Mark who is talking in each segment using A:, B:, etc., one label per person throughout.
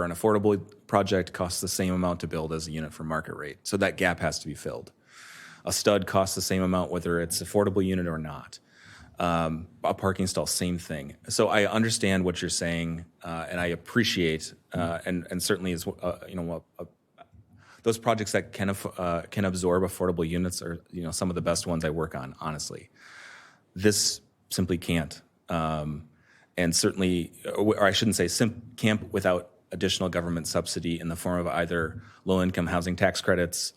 A: for an affordable project costs the same amount to build as a unit for market rate. So that gap has to be filled. A stud costs the same amount whether it's affordable unit or not. Um, a parking stall, same thing. So I understand what you're saying, uh, and I appreciate, uh, and and certainly is uh, you know a, those projects that can aff- uh, can absorb affordable units are you know some of the best ones I work on. Honestly, this simply can't, um, and certainly, uh, or I shouldn't say simp- camp without additional government subsidy in the form of either low income housing tax credits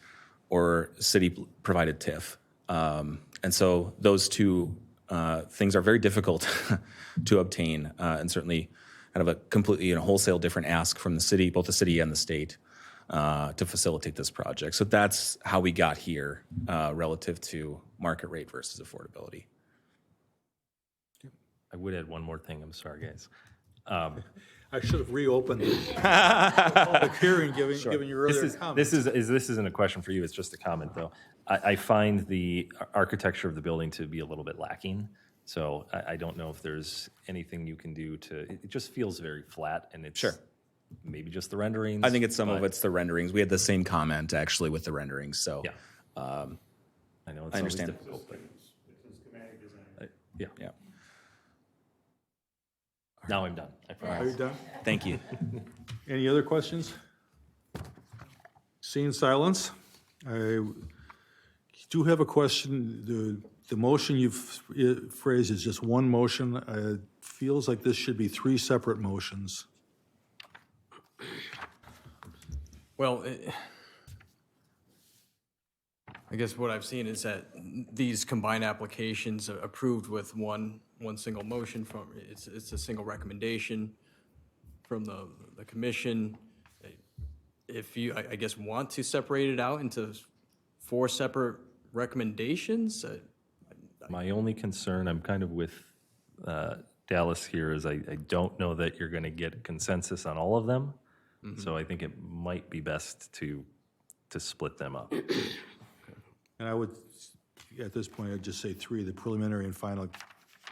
A: or city provided TIF. Um, and so those two uh, things are very difficult to obtain, uh, and certainly kind of a completely and wholesale different ask from the city, both the city and the state uh, to facilitate this project. So that's how we got here uh, relative to market rate versus affordability.
B: I would add one more thing, I'm sorry, guys. Um,
C: I should have reopened the public hearing, given, given your
B: This
C: earlier
B: is,
C: comment.
B: this is, is- this isn't a question for you, it's just a comment, though. I, I find the ar- architecture of the building to be a little bit lacking, so I, I don't know if there's anything you can do to, it it just feels very flat, and it's. Sure. Maybe just the renderings.
A: I think it's some of it's the renderings. We had the same comment actually with the renderings. So
B: Yeah. I know it's always
A: understand.
B: difficult, but. I- Yeah,
A: yeah.
B: now I'm done, I promise.
C: Are you done?
A: Thank you.
C: Any other questions? Seeing silence, I do have a question. The, the motion you've eh, phrased is just one motion. Uh, Feels like this should be three separate motions.
D: Well, it- I guess what I've seen is that these combined applications are approved with one, one single motion from, it's, it's a single recommendation from the, the commission. If you, I, I guess, want to separate it out into four separate recommendations, uh,
B: My only concern, I'm kind of with uh, Dallas here, is I, I don't know that you're going to get consensus on all of them. So I think it might be best to, to split them up.
C: And I would, at this point, I'd just say three, the preliminary and final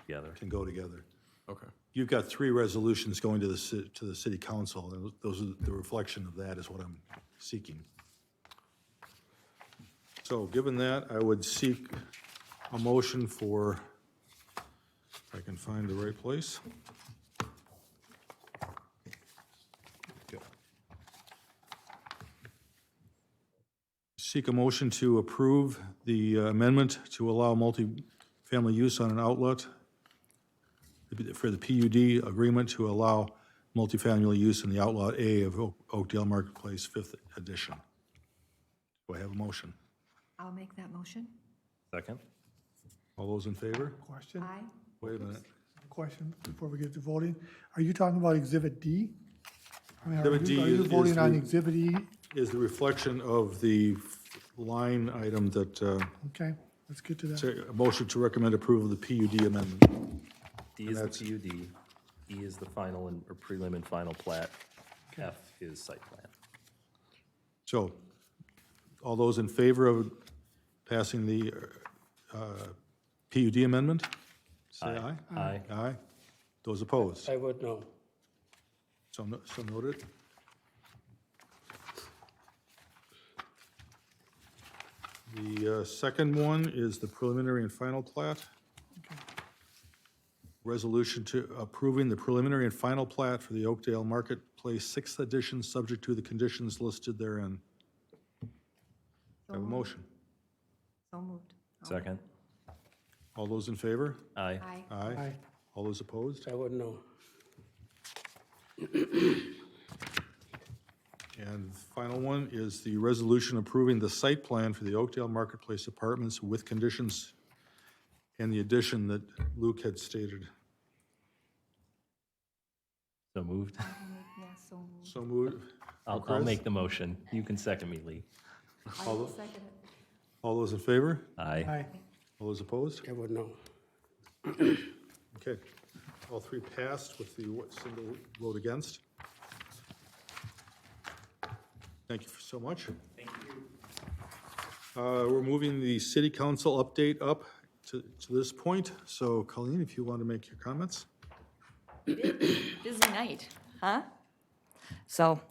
B: together.
C: can go together.
D: okay.
C: You've got three resolutions going to the, ci- to the city council, and those are, the reflection of that is what I'm seeking. So given that, I would seek a motion for, if I can find the right place. Seek a motion to approve the amendment to allow multifamily use on an outlet for the PUD agreement to allow multifamily use in the Outlaw A of Oak- Oakdale Marketplace, Fifth Edition. Do I have a motion?
E: I'll make that motion.
B: Second?
C: All those in favor?
F: Question,
E: Aye.
C: Wait a minute.
F: question before we get to voting. Are you talking about Exhibit D? I mean, are
C: Exhibit D
F: you- are you
C: is- is
F: voting on
C: the-
F: Exhibit E?
C: Is the reflection of the line item that, uh,
F: Okay, let's get to that.
C: to- a motion to recommend approval of the PUD amendment.
B: D is the PUD, E is the final and, or prelim and final plat, F is site plan.
C: So, all those in favor of passing the uh, PUD amendment? Say aye.
B: Aye.
C: Aye. Those opposed?
G: I would know.
C: So no- so noted. The uh, second one is the preliminary and final plat. Resolution to approving the preliminary and final plat for the Oakdale Marketplace Sixth Edition, subject to the conditions listed therein. Do I Have a motion.
E: So moved.
B: Second?
C: All those in favor?
B: Aye.
E: Aye.
C: Aye. All those opposed?
G: I would know.
C: And final one is the resolution approving the site plan for the Oakdale Marketplace Apartments with conditions and the addition that Luke had stated.
B: So moved.
E: Yeah, so moved.
C: So moved.
B: I'll, I'll make the motion. You can second me, Lee.
E: I will second it.
C: All those in favor?
B: Aye.
F: Aye.
C: All those opposed?
G: I would know.
C: Okay. All three passed with the what, single vote against. Thank you so much. Thank you. Uh, we're moving the city council update up to, to this point. So Colleen, if you want to make your comments?
H: busy night, huh?
I: So